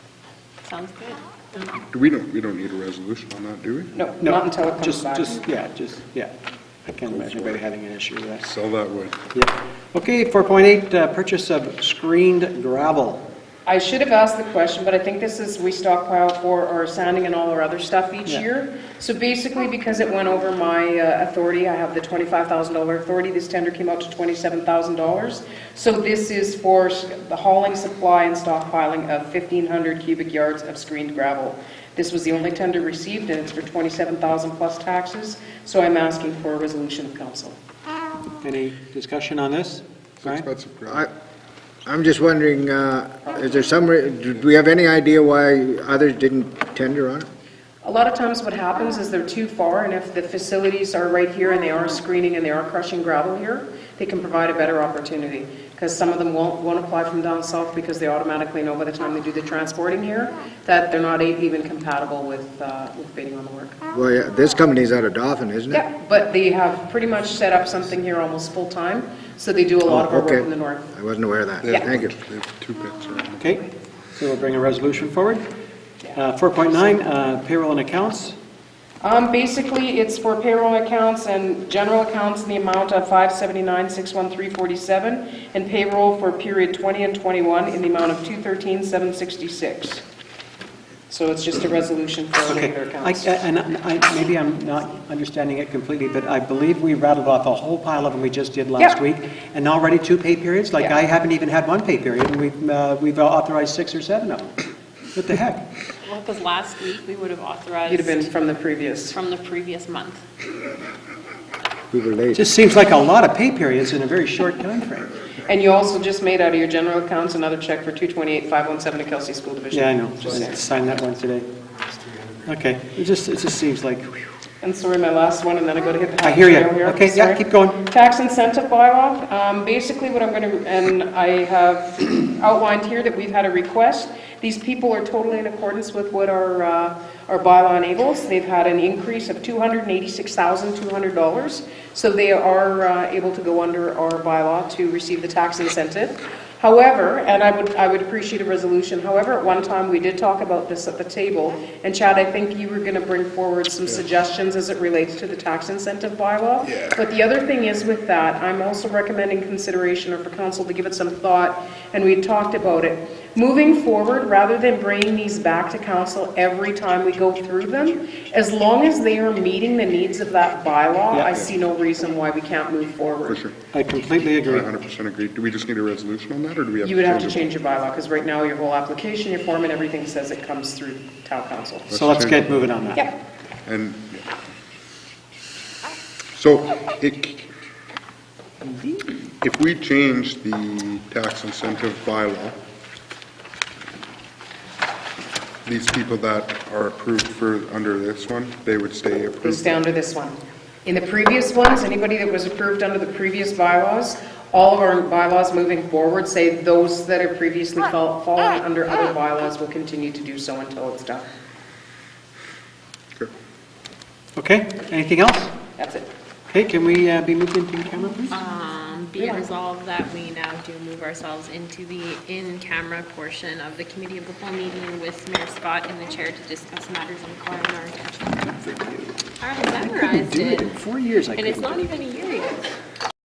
Sounds good. Do we don't, we don't need a resolution on that, do we? No, No, not until it comes just- back. Just, yeah, just, yeah. I can't imagine anybody having an issue with that. Sell that way. Yeah. Okay, 4.8, uh, purchase of screened gravel. I should have asked the question, but I think this is, we stockpile for our sanding and all our other stuff each Yeah. year. So basically, because it went over my uh, authority, I have the $25,000 authority, this tender came out to $27,000. So this is for s- the hauling supply and stockpiling of 1,500 cubic yards of screened gravel. This was the only tender received, and it's for $27,000 plus taxes, so I'm asking for a resolution of council. Any discussion on this? It's Brian? expensive gravel. I- I'm just wondering, uh, is there some, re- do we have any idea why others didn't tender on it? A lot of times what happens is they're too far, and if the facilities are right here and they are screening and they are crushing gravel here, they can provide a better opportunity, because some of them won't, won't apply from down south because they automatically know by the time they do the transporting here that they're not e- even compatible with, uh, with bidding on the work. Well, yeah, uh, this company's out of Dauphin, isn't it? Yeah, but they have pretty much set up something here almost full-time, so they do a lot of our Okay. work in the north. I wasn't aware of that. They have Thank you. one- They have two pits around. Okay, so we'll bring a resolution forward. Uh, 4.9, uh, payroll and accounts. Um, basically, it's for payroll accounts and general accounts in the amount of five seventy-nine, six one three forty-seven, and payroll for period twenty and twenty-one in the amount of two thirteen, seven sixty-six. So it's just a resolution for Okay, regular I- accounts. I- and I- I- maybe I'm not understanding it completely, but I believe we rattled off a whole pile of them we just did last Yeah. week, and already two pay periods? Like, Yeah. I haven't even had one pay period, and we've uh, we've authorized six or seven of them. What the heck? Well, because last week, we would have You'd have been authorized from the previous. from the previous month. We were It late. just seems like a lot of pay periods in a very short time frame. And you also just made out of your general accounts another check for two twenty-eight, five one seven to Kelsey School Division. Yeah, I know, Just I saying. signed that one today. Okay, it just, it just seems like, whew. And sorry, my last one, and then I go to hit the. I hat hear ya. trail here. Okay, yeah, Sorry. keep going. Tax incentive bylaw, um, basically what I'm going to, and I have outlined here that we've had a request. These people are totally in accordance with what our, uh, our bylaw enables. They've had an increase of $286,200, so they are uh, able to go under our bylaw to receive the tax incentive. However, and I would, I would appreciate a resolution, however, at one time, we did talk about this at the table, and Chad, I think you were going to bring forward some suggestions as it relates to the tax incentive bylaw. But the other thing is with that, I'm also recommending consideration or for council to give it some thought, and we had talked about it. Moving forward, rather than bringing these back to council every time we go through them, as long as they are meeting the needs of that bylaw, Yeah. I see no reason why we can't move For forward. sure. I completely I agree. 100% agree. Do we just need a resolution on that, or do we have? You would have to it? change your bylaw, because right now, your whole application, your form, and everything says it comes through town council. So let's get moving on that. Yep, And, so, it, c- if we change the tax incentive bylaw, these people that are approved for, under this one, they would stay goes approved? down to this one. In the previous ones, anybody that was approved under the previous bylaws, all of our bylaws moving forward say those that are previously fal- fallen under other bylaws will continue to do so until it's done. Okay. Okay, anything else? That's it. Okay, can we uh, be moved into camera, please? Um, Be it resolved that we now do move ourselves into the in-camera portion of the committee of the whole meeting with Mayor Scott in the chair to discuss matters in calling our attention. I memorized Do it it, in four years, I and it's couldn't. not even a year yet.